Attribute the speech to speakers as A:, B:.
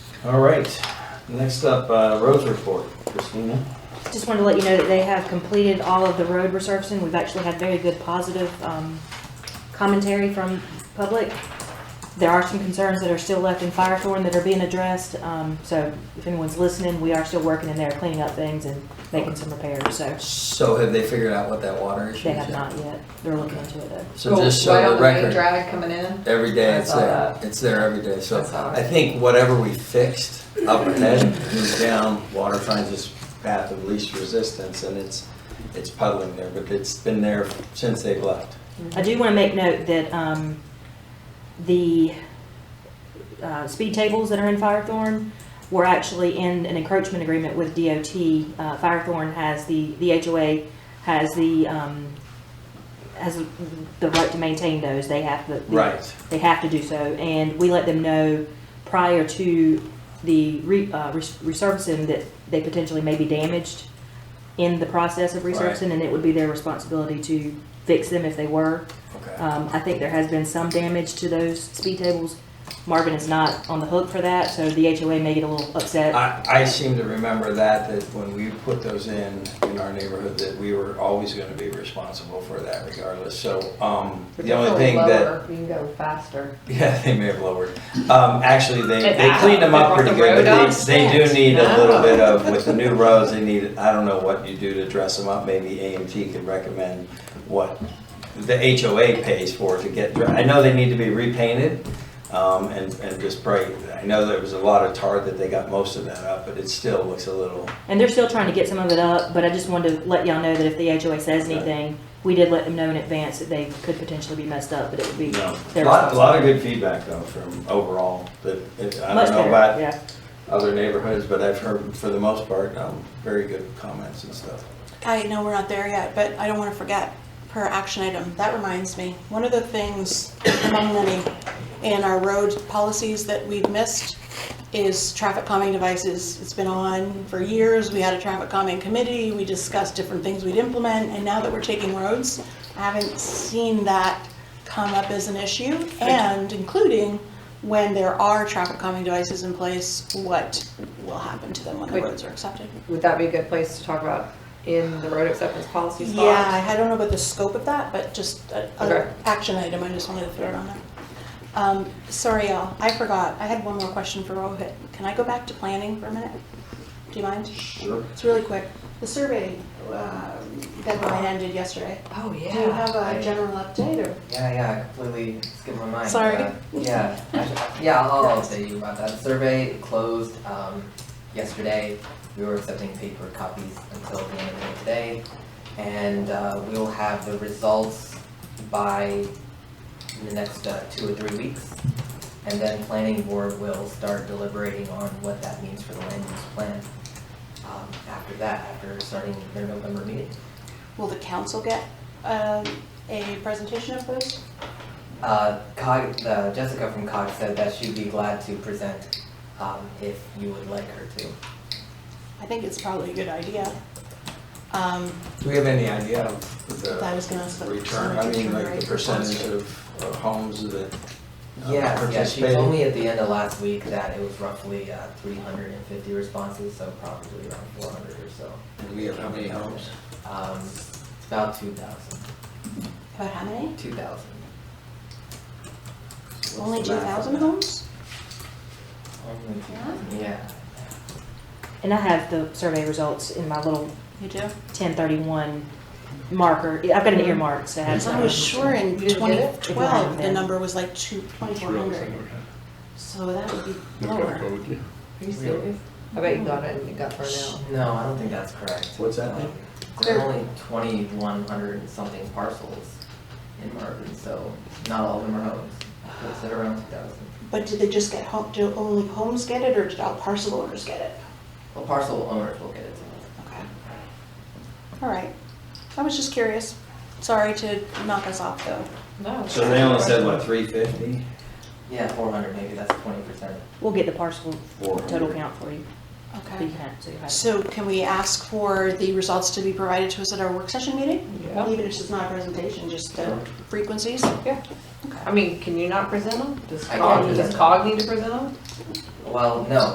A: All right, next up, uh, roads report, Christina.
B: Just wanted to let you know that they have completed all of the road resurfacing. We've actually had very good positive um, commentary from public. There are some concerns that are still left in Firethorn that are being addressed. um, So if anyone's listening, we are still working in there cleaning up things and making some repairs. So
C: So have they figured out what that water issue
B: they
C: is?
B: have
C: yet?
B: not yet. They're looking into it though.
C: So just so
D: right on
C: the
D: the main
C: record,
D: drag coming in.
C: every day
D: I
C: it's
D: saw
C: there,
D: that.
C: it's there every day, so
D: I saw
C: I
D: that.
C: think whatever we fixed up ahead moves down, water finds its path of least resistance and it's, it's puddling there, but it's been there since they've left.
B: I do want to make note that um, the uh, speed tables that are in Firethorn were actually in an encroachment agreement with DOT. Uh, Firethorn has the, the HOA has the, um, has the right to maintain those. They have the. the-
C: Right.
B: They have to do so, and we let them know prior to the re- uh, res- resurfacing that they potentially may be damaged in the process of resurfacing, and it would be their responsibility to fix them if they were.
C: Okay.
B: Um, I think there has been some damage to those speed tables. Marvin is not on the hook for that, so the HOA may get a little upset.
C: I, I seem to remember that, that when we put those in, in our neighborhood, that we were always gonna be responsible for that regardless, so, um, the only thing that.
D: You can go faster.
C: Yeah, they may have lowered. Um, actually, they,
D: It's
C: they
D: out.
C: cleaned them
D: They
C: up
D: brought
C: pretty
D: the
C: good,
D: road
C: but
D: out.
C: they, they do need a little
D: Oh.
C: bit of, with the new roads, they need, I don't know what you do to dress them up, maybe AMT could recommend what the HOA pays for to get, dr- I know they need to be repainted, um, and, and just bright. I know there was a lot of tar that they got most of that up, but it still looks a little,
B: And they're still trying to get some of it up, but I just wanted to let y'all know that if the HOA says
C: Right.
B: anything, we did let them know in advance that they could potentially be messed up, but it would be
C: you
B: their
C: know. A lot, a
B: responsibility.
C: lot of good feedback though from overall, that, it- I
B: Much
C: don't know about
B: better, yeah.
C: other neighborhoods, but I've heard, for the most part, um, very good comments and stuff.
E: I know we're not there yet, but I don't want to forget per action item. That reminds me, one of the things among many in our road policies that we've missed is traffic calming devices. It's been on for years. We had a traffic calming committee. We discussed different things we'd implement. And now that we're taking roads, I haven't seen that come up as an issue. And including when there are traffic calming devices in place, what will happen to them when the
D: Wait.
E: roads are accepted?
D: Would that be a good place to talk about in the road acceptance policy spot?
E: Yeah, I- I don't know about the scope of that, but just a-
D: Okay.
E: a action item, I just wanted to throw it on there. Um, sorry, Al, I forgot, I had one more question for Rohit. Can I go back to planning for a minute? Do you mind?
C: Sure.
E: It's really quick. The survey, uh, deadline ended yesterday.
D: Oh, Uh-huh. yeah.
E: Do you have a
F: I-
E: general update or?
F: Yeah, yeah, I completely skipped my mind.
E: Sorry.
F: Uh, Yeah, I should- yeah, I'll, I'll update you about that. Survey closed, um, yesterday. We were accepting paper copies until the end of the day today. And, uh, we will have the results by the next, uh, two or three weeks. And then planning board will start deliberating on what that means for the land use plan, um, after that, after starting their November meeting.
E: Will the council get, um, a presentation of those?
F: Uh, Cog, uh, Jessica from Cog said that she'd be glad to present, um, if you would like her to. Um,
E: I think it's probably a good idea. Um,
C: Do we have any idea of
E: I
C: the
E: was gonna ask the
C: return, I mean, like the
E: percentage
C: percentage of of homes that uh,
F: Yeah, yeah, she
C: participated?
F: told me at the end of last week that it was roughly, uh, three hundred and fifty responses, so probably around four hundred or so.
C: And we have how many homes?
F: Um, it's about two thousand.
E: About how many?
F: Two thousand.
E: Only
F: What's
E: two
F: the math
E: thousand
F: on that?
E: homes?
F: Only two thousand, yeah.
B: And I have the survey results in my little
E: You do?
B: 1031 marker. I've got an earmark, so I have
E: I
B: some.
E: was sure
D: You didn't
E: in
D: get
B: If you haven't
E: 2012, the
B: been.
E: number was like two- 2,400, so that would be lower.
D: Are you serious? I bet you got it and it got burned out.
F: No, I don't think that's correct.
C: What's that
F: Um,
C: mean?
F: There are only twenty-one hundred and something parcels in Marvin, so not all of them are homes. It's at around two thousand.
E: But did they just get home, do only homes get it, or did all parcel owners get it?
F: Well, parcel owners will get it.
E: Okay. All right. I was just curious. Sorry to knock us off, though.
D: No.
C: So they only said, what, three fifty?
F: Yeah, four hundred, maybe that's twenty percent.
B: We'll get the parcel total
C: 400.
B: count for you. You
E: Okay.
B: can have- so you have it.
E: So can we ask for the results to be provided to us at our work session meeting?
D: Yeah.
E: Even if it's not a presentation, just the frequencies?
D: Yeah.
E: Okay.
D: I mean, can you not present them? Does
F: I
D: Cog,
F: can't
D: does
F: present
D: Cog need to present them?
F: Well, no,